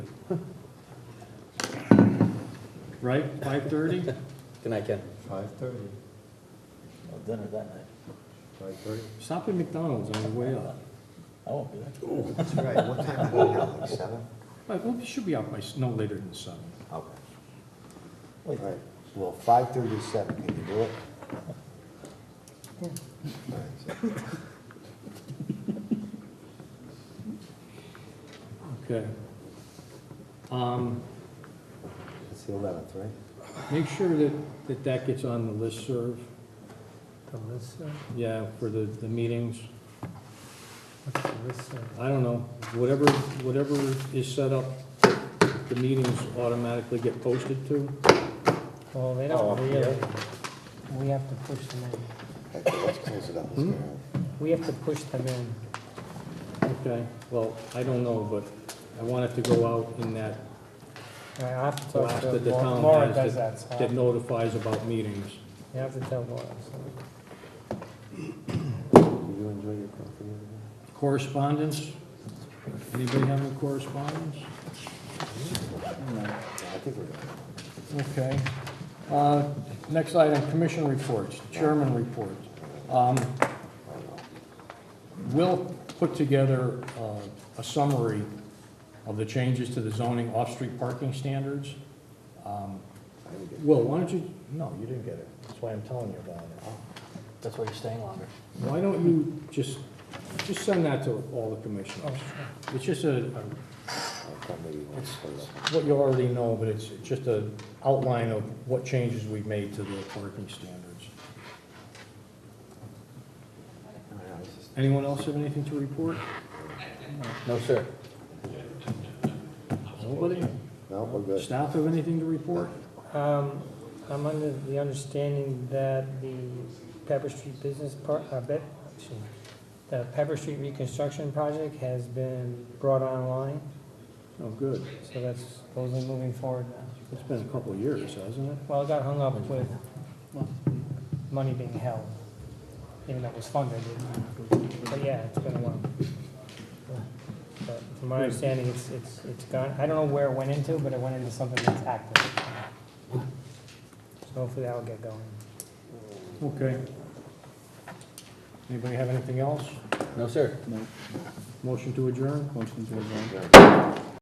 Right, five thirty? Good night, Ken. Five thirty. Well, Dinner that night. Five thirty. Stop at McDonald's on the way up. I won't be there. That's right, what time are we now, like seven? Like, well, we should be out by s- no later than seven. Okay, all Wait, right, well, five thirty to seven, can you do it? All right, so- Okay. Um, It's the eleventh, right? make sure that, that that gets on the listserv, The list, uh, yeah, for the, the meetings. what's the list, uh, I don't know, whatever, whatever is set up, the meetings automatically get posted to. well, they Oh, don't yeah. really, we have to push them Okay, let's close it up, let's get out. in, we have to push them in. Okay, well, I don't know, but I want it to go out in that, I have to talk Blast to that the Laura, town Laura has does that, so that I- notifies about meetings. you have to tell Laura, so. Did you enjoy your coffee? over there? Correspondence? Anybody have any correspondence? Yeah, I think we're done. Okay. Uh, Next item, commission reports, chairman report. Um, We'll put together uh, a summary of the changes to the zoning off-street parking standards. Um, Will, why don't you, No, you didn't get it. That's why I'm telling you about it. That's why you're staying longer. why don't you just, just send that to all the commissioners? Oh. Oh, It's just a, a I thought maybe you wanted to close up. what you already know, but it's just an outline of what changes we've made to the parking standards. I don't know, it's just- Anyone else have anything to report? No, sir. Nobody? No, we're good. Staff have anything to report? Um, I'm under the understanding that the Pepper Street Business Park, uh, bet, excuse me, the Pepper Street Reconstruction Project has been brought online, Oh, good. so that's supposedly moving forward now. It's been a couple of years, hasn't it? Well, it got hung up with money being held, even though it was funded. But yeah, it's been a while. But from my understanding, it's, it's, it's gone, I don't know where it went into, but it went into something that's active. So hopefully that'll get going. Okay. Anybody have anything else? No, sir. Motion to adjourn? Motion to adjourn.